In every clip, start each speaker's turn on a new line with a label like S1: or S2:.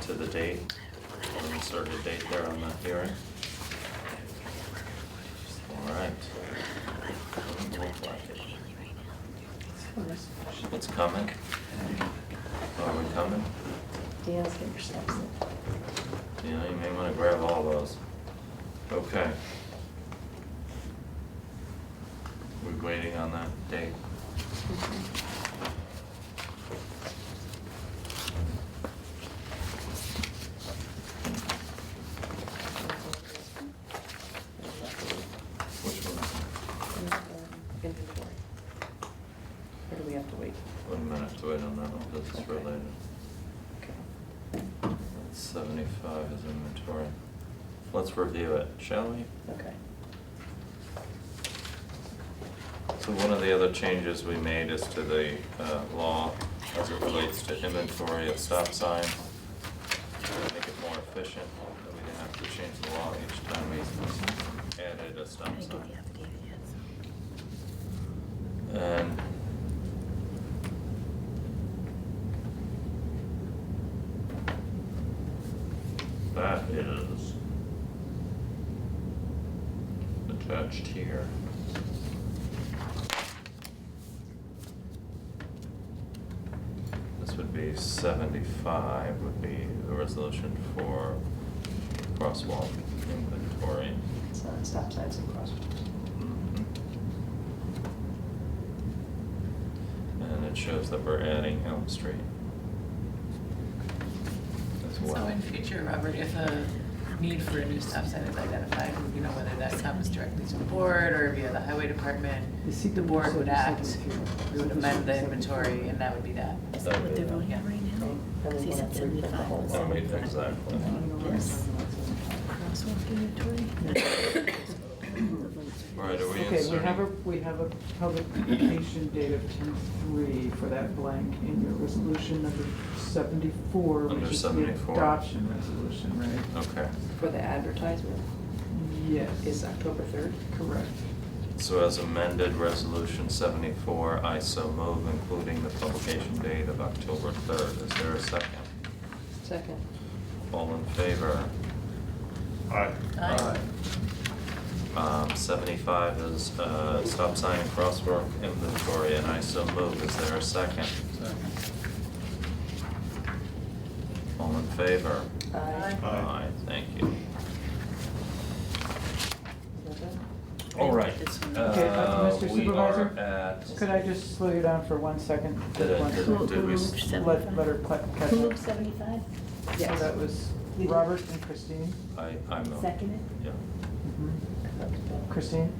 S1: to the date, or insert a date there on the hearing? All right. Doesn't look like it. It's coming? Are we coming?
S2: Dale's getting your steps in.
S1: You know, you may wanna grab all those. Okay. We're waiting on that date. Which one?
S2: Inventory. Or do we have to wait?
S1: One minute to wait on that one, this is
S2: Okay.
S1: related.
S2: Okay.
S1: That's Seventy-five is inventory. Let's review it, shall we?
S2: Okay.
S1: So one of the other changes we made is to the uh, law as it relates to inventory of stop signs. to Make it more efficient, that we didn't have to change the law each time we added a stop sign. And that is attached here. This would be seventy-five would be the resolution for crosswalk inventory.
S2: So it's stop signs and crosswalks.
S1: Mhm. And it shows that we're adding Elm Street. As
S3: So
S1: well.
S3: in future, Robert, if a need for a new stop sign is identified, you know, whether that comes directly to the board or via the highway department,
S4: You see
S3: the board would act, we would amend the
S4: Seven.
S3: inventory, and that would be that.
S5: Is that what they're voting
S3: Yeah.
S5: on right now? Because he's at seventy-five.
S1: I mean, exactly.
S5: Yes. Crosswalk inventory?
S1: All right, are we
S4: Okay, we have a,
S1: inserting-
S4: we have a publication date of ten three for that blank in your resolution number seventy-four,
S1: Under
S4: which is the
S1: 74.
S4: adoption resolution, right?
S1: Okay,
S2: For the advertisement
S1: Oh.
S2: is
S4: Yes,
S2: October third.
S4: correct.
S1: so as amended, resolution seventy-four, I so move, including the publication date of October third. Is there a second?
S2: Second.
S1: All in favor?
S6: Aye.
S3: Aye.
S1: Um, seventy-five is, uh, stop sign and crosswalk inventory, and I so move. Is there a second? All in favor?
S2: Aye.
S6: Aye.
S1: Thank you.
S2: Is that done?
S1: All right.
S5: This one.
S4: Okay, uh,
S1: uh,
S4: Mr.
S1: We
S4: Supervisor?
S1: are at.
S4: Could I just slow you down for one second?
S1: Did I-
S4: One
S1: did-
S4: second.
S5: Who
S1: did
S5: who
S1: we s-
S5: moved
S4: Let,
S5: seventy-five?
S4: let her cl- catch up.
S5: Who moved seventy-five?
S4: So that was
S2: We did.
S4: Robert and Christine.
S1: I, I move.
S5: Seconded?
S1: Yeah.
S3: Mm-hmm.
S4: Christine?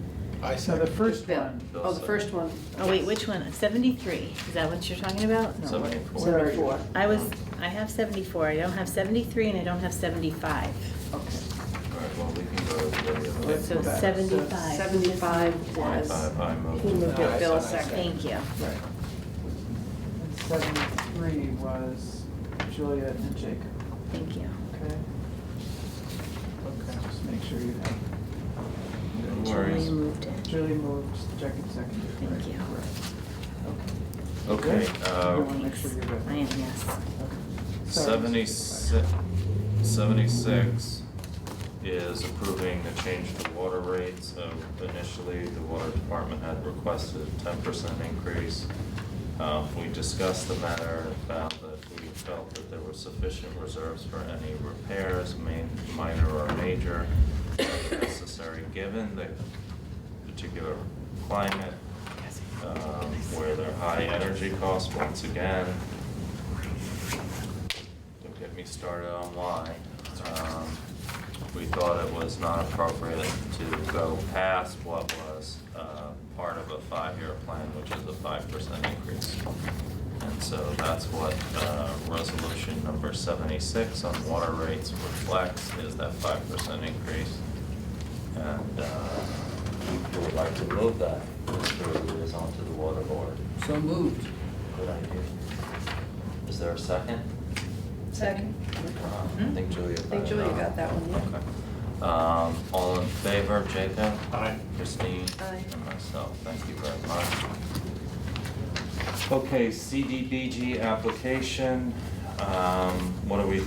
S6: I
S4: So the
S6: second.
S4: first
S2: Bill.
S4: one,
S1: Bill
S2: Oh, the
S1: said-
S2: first one.
S5: Oh, wait, which one? Seventy-three, is that what you're talking about?
S4: No.
S1: Seventy-four.
S2: Seventy-four.
S5: I was, I have seventy-four, I don't have seventy-three, and I don't have seventy-five.
S4: okay.
S1: All right, well, we can go to the other.
S4: Let's
S5: So
S4: go back.
S5: seventy-five.
S2: Seventy-five was.
S1: Seventy-five, I move.
S2: He moved it, Bill
S6: Nice, nice, nice.
S2: second.
S5: Thank you.
S4: Right. And seventy-three was Julia and Jacob,
S5: Thank you.
S4: okay? Okay, just make sure you have,
S1: No
S5: Julia
S1: worries.
S5: moved it.
S4: Julie moved, Jacob seconded,
S5: Thank
S4: right?
S5: you.
S4: Correct.
S1: Okay,
S4: You
S1: uh,
S4: wanna make sure you're good.
S5: I am, yes.
S4: Okay. Sorry, Mr.
S1: seventy-six, seventy-six is approving the change to water rates. Uh, Initially, the water department had requested a ten percent increase. Uh, we discussed the matter and found that we felt that there were sufficient reserves for any repairs, main, minor or major, necessary given the particular climate, um, where there are high energy costs once again. Don't get me started on why. Um, We thought it was not appropriate to go past what was uh, part of a five-year plan, which is a five percent increase. And so that's what uh, resolution number seventy-six on water rates reflects, is that five percent increase. And uh, we would like to move that, Mr. Lewis, onto the water board.
S3: So moved.
S1: Good idea. Is there a second?
S2: Second.
S1: Um, I think Julia.
S2: Hmm? I think Julia got that one, yeah.
S1: Okay. Um, all in favor, Jacob?
S6: Aye.
S1: Christine?
S2: Aye.
S1: And myself, thank you very much. Okay, CDBG application, um, what are we